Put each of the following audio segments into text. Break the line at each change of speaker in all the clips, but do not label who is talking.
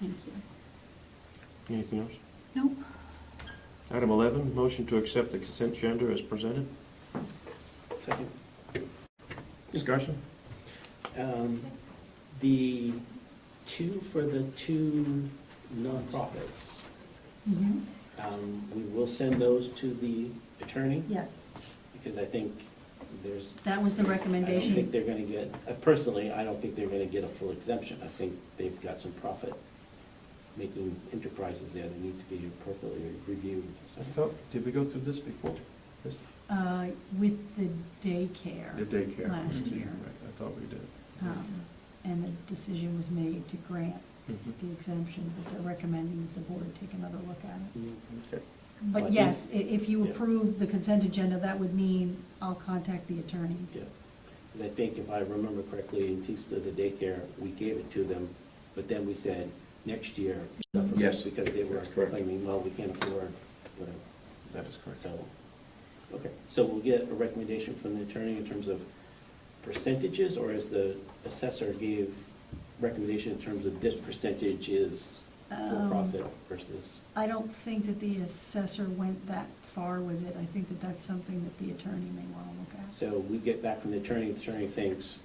Thank you.
Anything else?
Nope.
Item 11, motion to accept the consent agenda as presented.
Second.
Discussion?
Um, The two for the two nonprofits,
Yes,
um, we will send those to the attorney,
yeah,
because I think there's,
that was the
I don't think
recommendation.
they're gonna get, uh, personally, I don't think they're gonna get a full exemption. I think they've got some profit-making enterprises there that need to be appropriately reviewed. so.
did we go through this before?
Uh, with the daycare,
daycare.
Last year.
I thought we did.
um, and the decision was made to grant
Mhm.
the exemption, but they're recommending that the board take another look at it.
Okay.
I
But
think-
yes, i- if you
Yeah.
approve the consent agenda, that would mean I'll contact the attorney.
Yeah, because I think if I remember correctly, in Teamster, the daycare, we gave it to them, but then we said, next year, suffer this,"
Yes,
because they were
that's correct.
claiming, well, we can't afford, whatever.
That is correct.
So, okay, so we'll get a recommendation from the attorney in terms of percentages, or as the assessor gave recommendation in terms of this percentage is
Um,
for-profit versus,
I don't think that the assessor went that far with it. I think that that's something that the attorney may want to look at.
so we get back from the attorney, the attorney thinks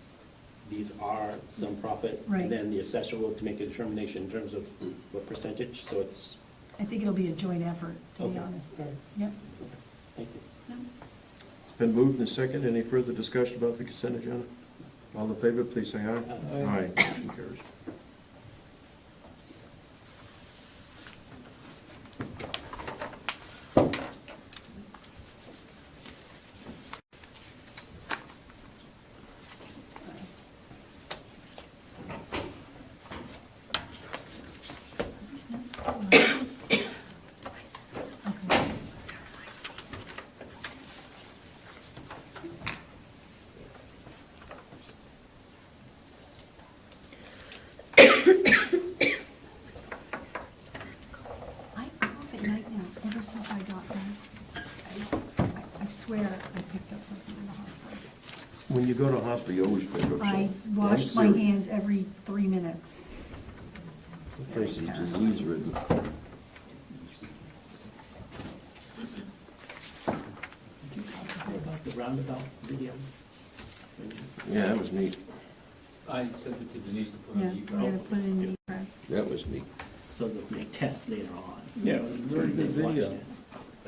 these are some profit.
Right.
And then the assessor will to make a determination in terms of what percentage, so it's,
I think it'll be a joint effort, to
okay.
be honest.
All right,
Yep.
okay. Thank you.
No.
It's been moved and second. Any further discussion about the consent agenda? All in favor, please say aye.
Aye.
Motion carries.
These notes still on? Okay. I cough at night now, ever since I got there. I- I- I swear I picked up something in the hospital.
When you go to hospital, you always pick up
I
something.
wash my
I'm serious.
hands every three minutes.
This Place is disease ridden.
Did you talk about the roundabout video?
Yeah, that was neat.
I sent it to Denise to put
Yeah,
on
we're gonna
the
put it in the track.
That was neat.
So that we test later on.
Yeah,
Very good video.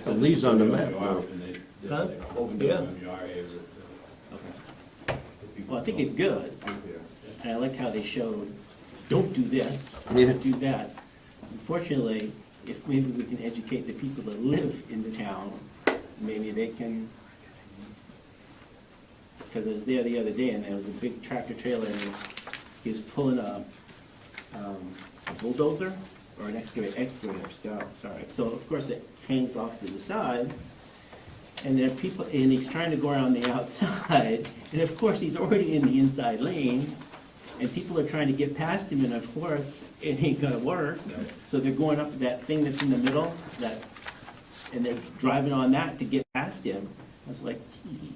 The leaves on the map, wow.
And they, they
Huh?
opened
Yeah.
up MURA, it was, uh, the people
Well, I think it's good,
don't do that.
and I like how they showed, don't do this,
Yeah.
don't do that. Unfortunately, if maybe we can educate the people that live in the town, maybe they can, because I was there the other day, and there was a big tractor trailer, and he was- he was pulling a um, a bulldozer, or an excavator, excavator, so- sorry. So of course, it hangs off to the side, and there are people, and he's trying to go around the outside, and of course, he's already in the inside lane, and people are trying to get past him, and of course, it ain't gonna work. So they're going up that thing that's in the middle, that, and they're driving on that to get past him. I was like, gee.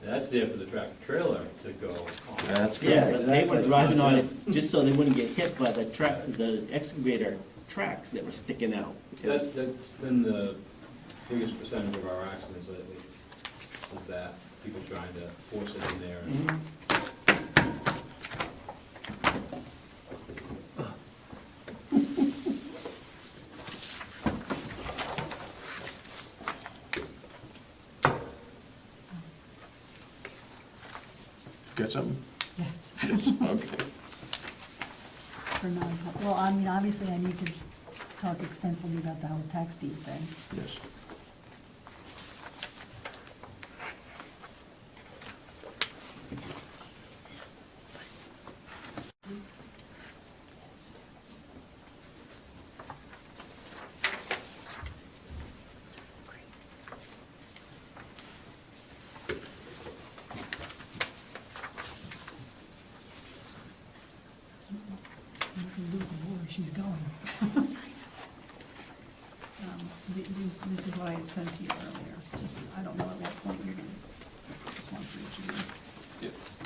That's there for the tractor trailer to go on.
That's
Yeah,
correct.
but they were driving on it just so they wouldn't get hit by the track, the excavator tracks that were sticking out.
That's, that's been the biggest percentage of our accidents lately, is that people trying to force it in there. and-
Mhm.
Got something?
Yes.
Yes, okay.
For non-public, well, I mean, obviously, I need to talk extensively about the whole tax deed thing.
Yes.
You can leave her where she's going. Um, th- This, this is what I had sent to you earlier, just, I don't know at what point you're gonna, just want for each of you.
Yes.